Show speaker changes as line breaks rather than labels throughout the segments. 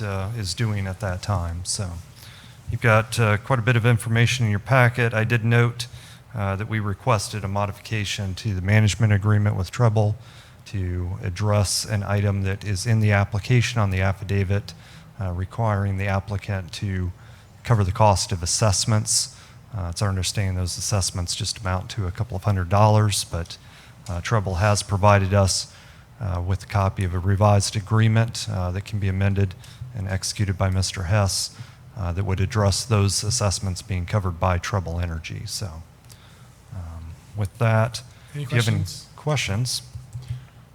uh, is doing at that time. So you've got uh, quite a bit of information in your packet. I did note uh, that we requested a modification to the management agreement with Treble to address an item that is in the application on the affidavit uh, requiring the applicant to cover the cost of assessments. Uh, It's our understanding those assessments just amount to a couple of hundred dollars, but uh, Treble has provided us uh, with a copy of a revised agreement uh, that can be amended and executed by Mr. Hess uh, that would address those assessments being covered by Treble Energy. So um, with that,
Any
if you have any
questions?
questions?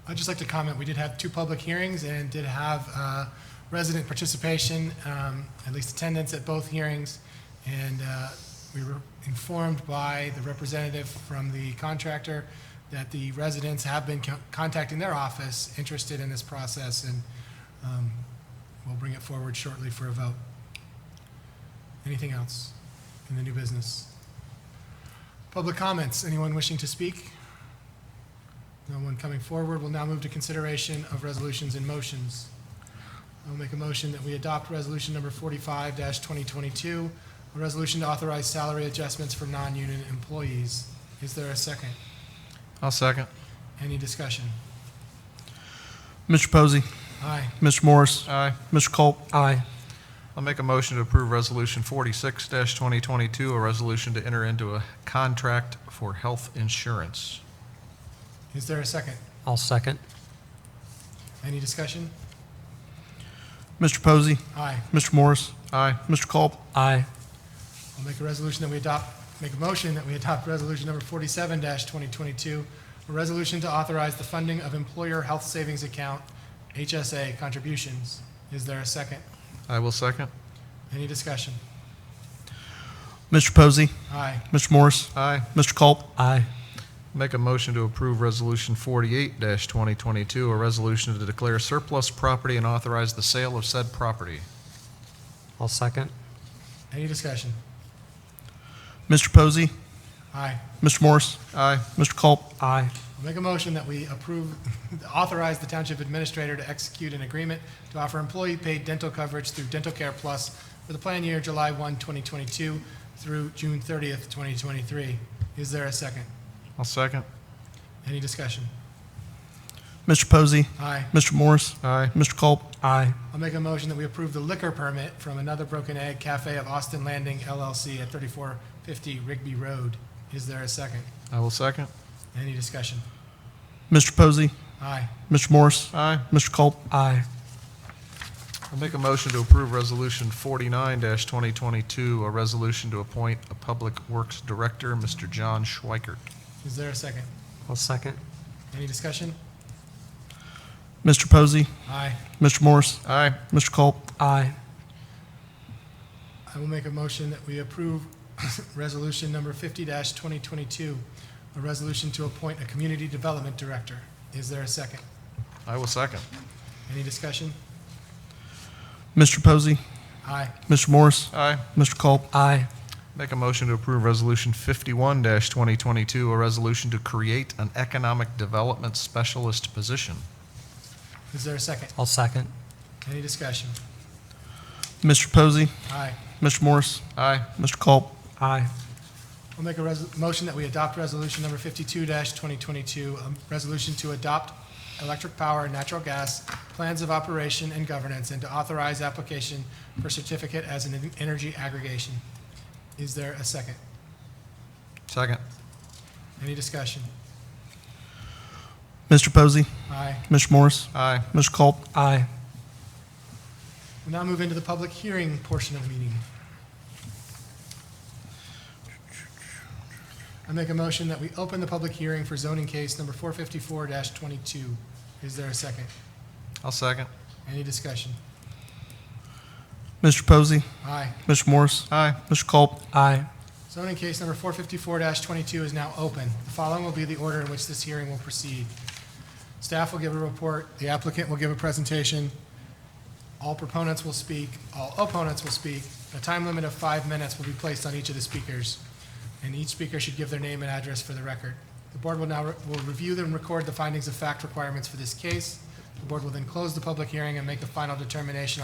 I'd just like to comment, we did have two public hearings and did have uh, resident participation, um, at least attendance at both hearings. And uh, we were informed by the representative from the contractor that the residents have been co- contacting their office, interested in this process, and um, we'll bring it forward shortly for a vote. Anything else in the new business? Public comments, anyone wishing to speak? No one coming forward. We'll now move to consideration of resolutions and motions. I'll make a motion that we adopt resolution number forty-five twenty twenty-two, a resolution to authorize salary adjustments for non-union employees. Is there a second?
I'll second.
Any discussion?
Mr. Posey,
Aye.
Mr. Morris,
Aye.
Mr. Culp. Aye.
I'll make a motion to approve Resolution 46-2022, a resolution to enter into a contract for health insurance.
Is there a second?
I'll second.
Any discussion?
Mr. Posey,
Aye.
Mr. Morris,
Aye.
Mr. Culp.
Aye.
I'll make a resolution that we adopt, make a motion that we adopt resolution number forty-seven twenty twenty-two, a resolution to authorize the funding of employer health savings account, HSA contributions. Is there a second?
I will second.
Any discussion?
Mr. Posey,
Aye.
Mr. Morris,
Aye.
Mr. Culp.
Aye.
Make a motion to approve Resolution 48-2022, a resolution to declare surplus property and authorize the sale of said property.
I'll second.
Any discussion?
Mr. Posey,
Aye.
Mr. Morris,
Aye.
Mr. Culp.
Aye.
I'll make a motion that we approve, authorize the township administrator to execute an agreement to offer employee paid dental coverage through Dental Care Plus for the plan year July 1, 2022 through June 30th, 2023. Is there a second?
I'll second.
Any discussion?
Mr. Posey,
Aye.
Mr. Morris,
Aye.
Mr. Culp.
Aye.
I'll make a motion that we approve the liquor permit from Another Broken Egg Cafe of Austin Landing LLC at 3450 Rigby Road. Is there a second?
I will second.
Any discussion?
Mr. Posey,
Aye.
Mr. Morris,
Aye.
Mr. Culp.
Aye.
I'll make a motion to approve Resolution 49-2022, a resolution to appoint a Public Works Director, Mr. John Schweikert.
Is there a second?
I'll second.
Any discussion?
Mr. Posey,
Aye.
Mr. Morris,
Aye.
Mr. Culp.
Aye.
I will make a motion that we approve resolution number fifty twenty twenty-two, a resolution to appoint a community development director. Is there a second?
I will second.
Any discussion?
Mr. Posey,
Aye.
Mr. Morris,
Aye.
Mr. Culp.
Aye.
Make a motion to approve Resolution 51-2022, a resolution to create an economic development specialist position.
Is there a second?
I'll second.
Any discussion?
Mr. Posey,
Aye.
Mr. Morris,
Aye.
Mr. Culp.
Aye.
I'll make a res- motion that we adopt resolution number fifty-two twenty twenty-two, a resolution to adopt electric power and natural gas plans of operation and governance and to authorize application for certificate as an en- energy aggregation. Is there a second?
Second.
Any discussion?
Mr. Posey,
Aye.
Mr. Morris,
Aye.
Mr. Culp.
Aye.
We'll now move into the public hearing portion of the meeting. I make a motion that we open the public hearing for zoning case number 454-22. Is there a second?
I'll second.
Any discussion?
Mr. Posey,
Aye.
Mr. Morris,
Aye.
Mr. Culp.
Aye.
Zoning case number 454-22 is now open. The following will be the order in which this hearing will proceed. Staff will give a report, the applicant will give a presentation, all proponents will speak, all opponents will speak. A time limit of five minutes will be placed on each of the speakers, and each speaker should give their name and address for the record. The board will now, re- will review and record the findings of fact requirements for this case. The board will then close the public hearing and make a final determination on